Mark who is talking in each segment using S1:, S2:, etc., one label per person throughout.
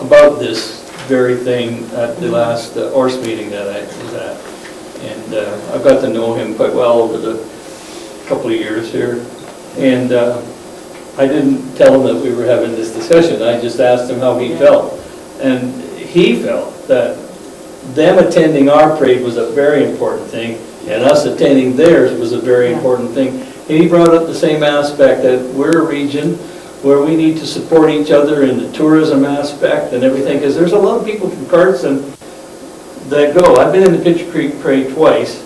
S1: about this very thing at the last uh, ORS meeting that I was at. And uh, I've got to know him quite well over the couple of years here. And uh, I didn't tell him that we were having this discussion, I just asked him how he felt. And he felt that them attending our parade was a very important thing, and us attending theirs was a very
S2: Yeah.
S1: important thing. And he brought up the same aspect, that we're a region where we need to support each other in the tourism aspect and everything, because there's a lot of people from Carson that go. I've been in the Pitcher Creek Parade twice,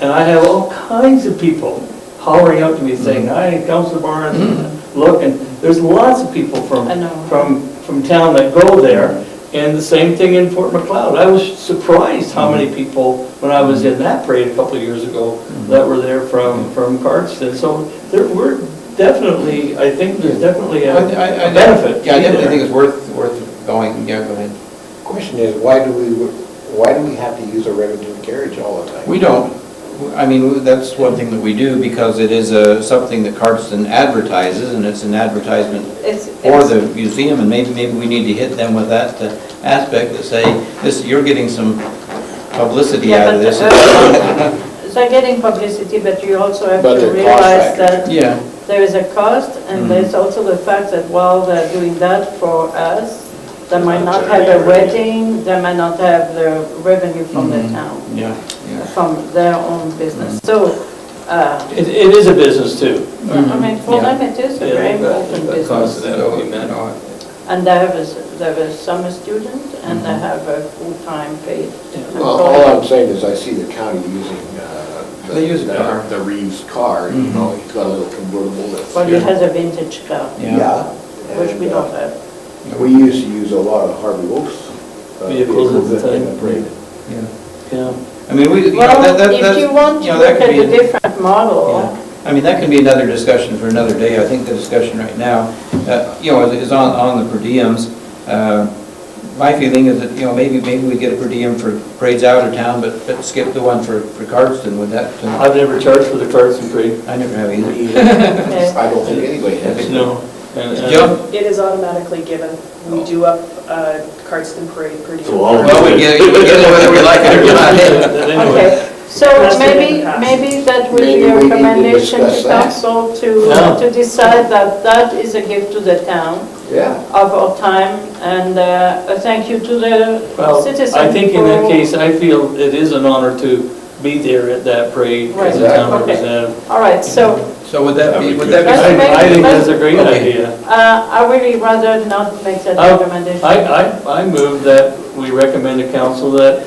S1: and I have all kinds of people hollering out to me saying,
S3: Mm-hmm.
S1: hi, Counselor Barnes, look, and there's lots of people from,
S2: I know.
S1: from, from town that go there. And the same thing in Fort McLeod. I was surprised how
S3: Mm-hmm.
S1: many people, when I was in that parade a couple of years ago, that were there from,
S3: Mm-hmm.
S1: from Cardston. So there were definitely, I think there's definitely a
S3: I- I- I-
S1: a benefit.
S3: Yeah, I definitely
S1: there.
S3: think it's worth, worth going, yeah, go ahead.
S4: Question is, why do we, why do we have to use a revenue carriage all the time?
S3: We don't, I mean, that's one thing that we do because it is a, something that Cardston advertises and it's an advertisement
S2: It's,
S3: for
S2: it's-
S3: the museum and maybe, maybe we need to hit them with that uh, aspect to say, this, you're getting some publicity
S2: yeah,
S3: out of
S2: but,
S3: this.
S2: uh, so getting publicity, but you also have
S4: But
S2: to
S4: the cost
S2: realize
S4: factor. Mm-hmm.
S2: that
S3: Yeah,
S2: there is a cost, and there's also the fact that while they're doing that for us, they might not have a wedding, they might not have the revenue from the
S4: Mm-hmm.
S2: town,
S3: yeah, yeah.
S2: from their own business. So, uh,
S1: It, it is a business too.
S2: I
S4: Mm-hmm.
S2: mean, for
S3: Yeah.
S2: them, it is a
S1: Yeah,
S2: very
S1: they've got-
S2: important
S1: they've got
S2: business.
S1: costs that we met.
S2: And they have a, s- they have a summer student, and they have a full-time paid.
S4: Mm-hmm. Well, all I'm saying is I see the county using, uh. the-
S3: They use a
S4: the-
S3: car.
S4: The Reeves car, you know, he's got a little convertible that's.
S2: Mm-hmm. But it has a vintage car,
S3: Yeah.
S2: which we
S4: and,
S2: don't
S4: uh,
S2: have.
S4: We used to use a lot of Harvey Wolf's. uh,
S1: Vehicles at the
S4: vehicles in
S1: time.
S4: parade.
S3: yeah.
S1: Yeah.
S3: I mean, we, you know, that,
S2: Well,
S3: that, that.
S2: if you want
S3: you
S2: to
S3: know,
S2: look at
S3: that could be
S2: a
S3: an-
S2: different model,
S3: Yeah. I mean, that can be another discussion for another day. I think the discussion right now, uh, you know, is on, on the per diems. Uh, My feeling is that, you know, maybe, maybe we get a per diem for parades out of town, but, but skip the one for, for Cardston, would that, uh,
S1: I've never charged for the cards and parade.
S3: I never have either.
S2: okay.
S4: I don't think anybody has.
S1: No. And- and-
S3: Joe?
S5: uh, It is automatically given.
S2: Oh.
S5: We do up uh, Cardston Parade pretty.
S4: So all of
S1: Well,
S3: Oh, We get we get it whether we like it or not.
S1: Anyway,
S2: Okay, so
S5: That's been in
S2: maybe,
S5: the past.
S2: maybe that would
S4: Maybe
S2: be
S4: we
S2: a
S4: need to
S2: recommendation to
S4: discuss that.
S2: council to,
S1: No.
S2: to decide that that is a gift to the town
S4: Yeah.
S2: of our time, and uh, a thank you to the
S1: well,
S2: citizens.
S1: I think in that
S2: for-
S1: case, I feel it is an honor to be there at that parade as a
S4: Right.
S1: town
S2: Okay.
S1: representative.
S2: All right, so
S3: So would that be, would that be?
S2: Let's
S1: I I think
S2: make-
S1: that's a great
S3: Okay.
S1: idea.
S2: uh, I really rather not make that
S1: I-
S2: recommendation.
S1: I, I, I move that we recommend to council that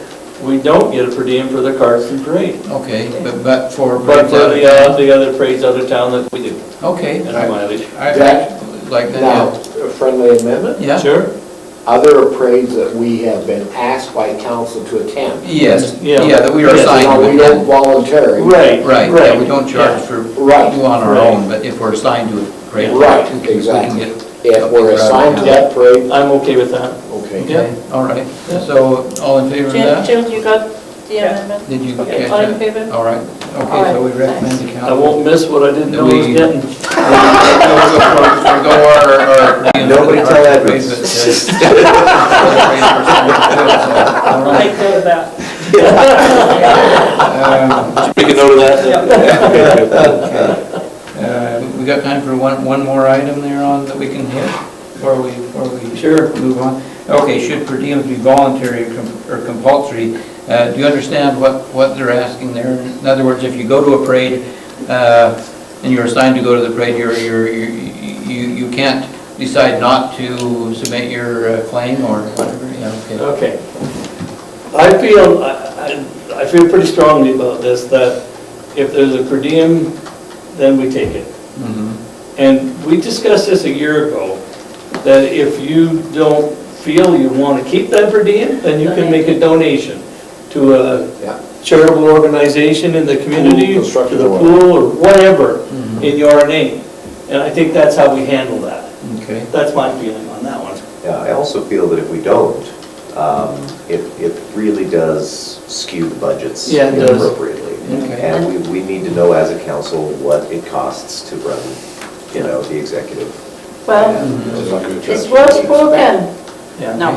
S1: we don't get a per diem for the cards and parade.
S3: Okay, but, but for.
S1: But for uh, the, uh, the other parades out of town that we do,
S3: Okay.
S1: and mileage.
S3: I,
S4: That-
S3: I like
S4: Now,
S3: that,
S4: a friendly amendment?
S3: yeah. Yeah?
S1: Sure?
S4: Other parades that we have been asked by council to attend.
S3: Yes,
S1: Yeah.
S3: yeah, that we are
S4: Yes, now,
S3: assigned.
S4: We
S3: to
S4: don't
S3: attend.
S4: voluntarily.
S1: Right,
S3: Right, yeah, we don't charge
S1: yeah.
S3: for, do
S4: Right.
S3: on our
S1: Right.
S3: own, but if we're assigned to it, great.
S4: Right,
S3: we can- we can
S4: exactly.
S3: get-
S4: If we're assigned to that parade,
S1: I'm okay with that.
S4: okay.
S3: Okay, all right, so all in favor of
S2: Jill,
S3: that?
S2: Jill, you got the
S5: Yeah.
S2: amendment?
S3: Did you
S2: Okay,
S3: catch
S2: all in
S3: that?
S2: favor?
S3: All right, okay, so we recommend the
S1: I
S3: council.
S1: won't miss what I didn't know I was
S3: We-
S1: getting.
S3: Nobody
S4: Nobody tell Edwards.
S5: Make note of that.
S1: Make a note of that.
S3: Um, We got time for one, one more item there on that we can hit before we, before we.
S1: Sure.
S3: Move on. Okay, should per diems be voluntary or com- or compulsory? Uh, Do you understand what, what they're asking there? In other words, if you go to a parade uh, and you're assigned to go to the parade, you're, you're, you, you can't decide not to submit your uh, claim or whatever, yeah, okay.
S1: Okay. I feel, I, I- I feel pretty strongly about this, that if there's a per diem, then we take it.
S3: Mhm.
S1: And we discussed this a year ago, that if you don't feel you want to keep that per diem, then you can make a donation to a
S4: Yeah.
S1: charitable organization in the community, to
S4: construction Mm-hmm.
S1: the
S4: or
S1: pool, or whatever, in your name. And I think that's how we handle that.
S3: Okay.
S1: That's my feeling on that one.
S6: Yeah, I also feel that if we don't, um, it, it really does skew the budgets
S1: Yeah, it does.
S6: inappropriately.
S3: Okay.
S6: And we, we need to know as a council what it costs to run, you know, the executive
S2: Well,
S4: It's like a
S2: it's
S4: church.
S2: well spoken.
S1: Yeah.
S2: No.